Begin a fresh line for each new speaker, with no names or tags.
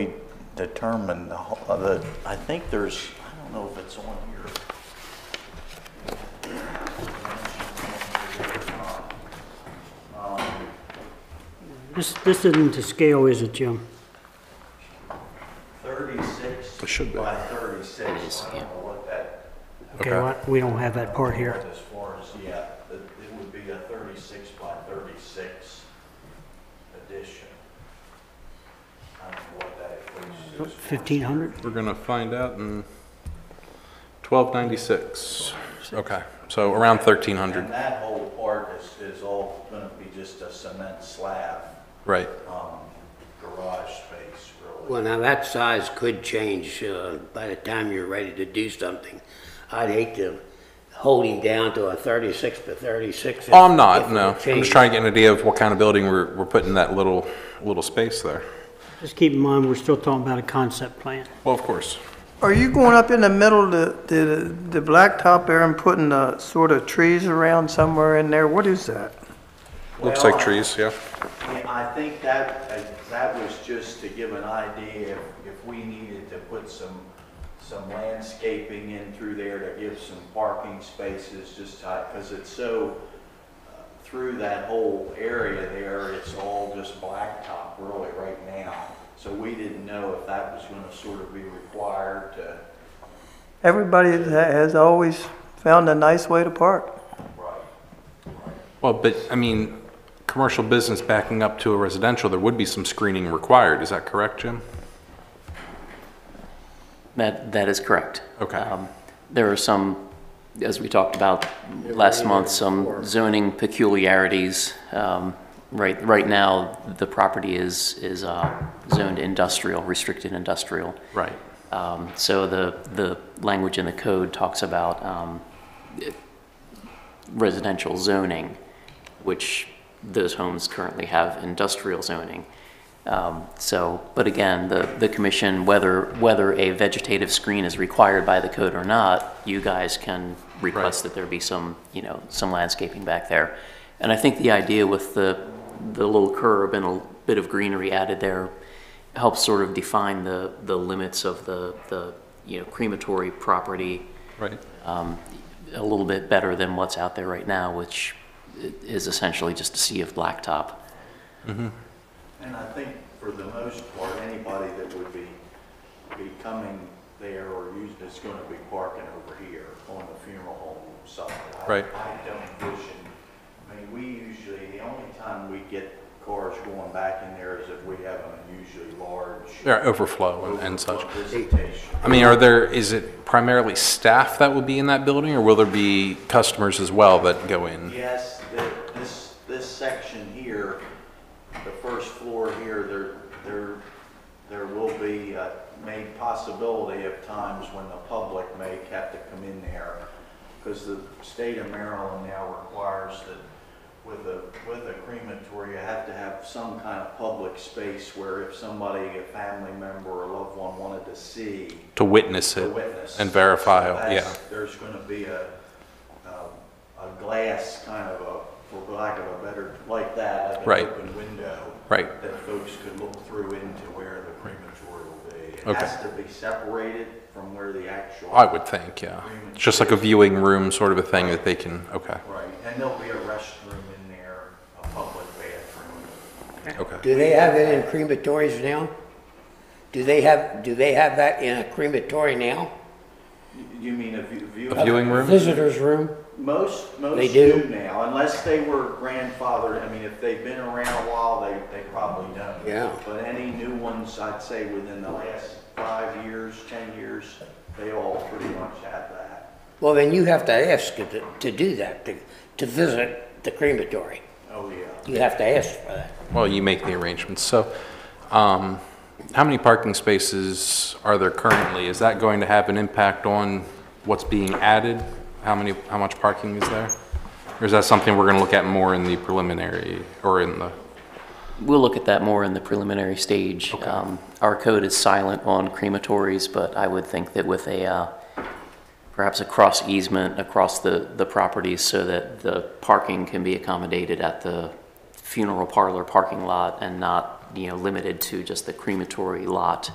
determine the, ho- uh, the, I think there's, I don't know if it's on here.
This, this isn't to scale, is it, Jim?
36
It should be.
by 36. I don't know what that,
Okay,
Okay.
what- we don't have that part here.
as far as, yeah, it it would be a 36 by 36 addition. I don't know what that equates to. as far as-
1,500?
We're gonna find out in twelve ninety-six. Okay, so around thirteen
And
hundred,
that whole part is, is all going to be just a cement slab,
right?
um, garage space, really.
Well, now that size could change uh, by the time you're ready to do something. I'd hate to hold him down to a 36 by 36. if-
Oh, I'm
if
not,
it
no. I'm
changes.
just trying to get an idea of what kind of building we're, we're putting that little, little space there.
Just keep in mind, we're still talking about a concept plan.
Well, of course.
Are you going up in the middle of the, the, the blacktop there and putting the sort of trees around somewhere in there? What is that?
Looks
Well,
like trees, yeah.
Yeah, I think that, uh, that was just to give an idea if, if we needed to put some, some landscaping in through there to give some parking spaces, just type, because it's so, uh, through that whole area there, it's all just blacktop really right now. So we didn't know if that was gonna sort of be required to,
Everybody ha- has always found a nice way to park.
right?
Well, but, I mean, commercial business backing up to a residential, there would be some screening required. Is that correct, Jim?
That, that is correct.
Okay.
Um, There are some, as we talked about last month, some zoning peculiarities. Um, Right, right now, the property is, is uh, zoned industrial, restricted industrial.
Right.
Um, So the, the language in the code talks about um, residential zoning, which those homes currently have industrial zoning. Um, So, but again, the, the commission, whether, whether a vegetative screen is required by the code or not, you guys can request that there be some, you know, some landscaping back there. And I think the idea with the, the little curb and a bit of greenery added there helps sort of define the, the limits of the, the, you know, crematory property
Right.
um, a little bit better than what's out there right now, which i- is essentially just a sea of blacktop.
And I think for the most part, anybody that would be, be coming there or using, it's gonna be parking over here on the funeral home side. I-
Right.
I don't envision, I mean, we usually, the only time we get cars going back in there is if we have an unusually large.
Yeah, overflow and- and such.
overflow Visitation.
I mean, are there, is it primarily staff that will be in that building, or will there be customers as well that go in?
Yes, the- this, this section here, the first floor here, there, there, there will be uh, made possibility of times when the public may have to come in there, because the state of Maryland now requires that with a, with a crematory, you have to have some kind of public space where if somebody, a family member or a loved one wanted to see,
To witness
to
it
witness.
and verify,
So that's-
yeah.
There's going to be a, um, a glass kind of a, for lack of a better, like that, like
Right.
an open window.
Right.
That folks could look through into where the crematory will be. It
Okay.
has to be separated from where the actual.
I would think, yeah. It's Just like a viewing room sort of a thing that they can, okay,
Right, and there'll be a restroom in there, a public bathroom.
okay.
Do they have it in crematories now? Do they have, do they have that in a crematory now?
You- You mean a view? view-
A viewing room?
Visitor's room?
Most,
They
most
do?
do now, unless they were grandfathered, I mean, if they've been around a while, they, they probably don't.
Yeah.
But any new ones, I'd say within the last five years, 10 years, they all pretty much have that.
Well, then you have to ask to, to do that, to, to visit the crematory.
Oh, yeah.
You have to ask for that.
Well, you make the arrangements. So, um, how many parking spaces are there currently? Is that going to have an impact on what's being added? How many, how much parking is there? Or is that something we're gonna look at more in the preliminary, or in the,
We'll look at that more in the preliminary stage. Um, Our code is silent on crematories, but I would think that with a, uh, perhaps a cross easement across the, the properties so that the parking can be accommodated at the funeral parlor parking lot and not, you know, limited to just the crematory lot.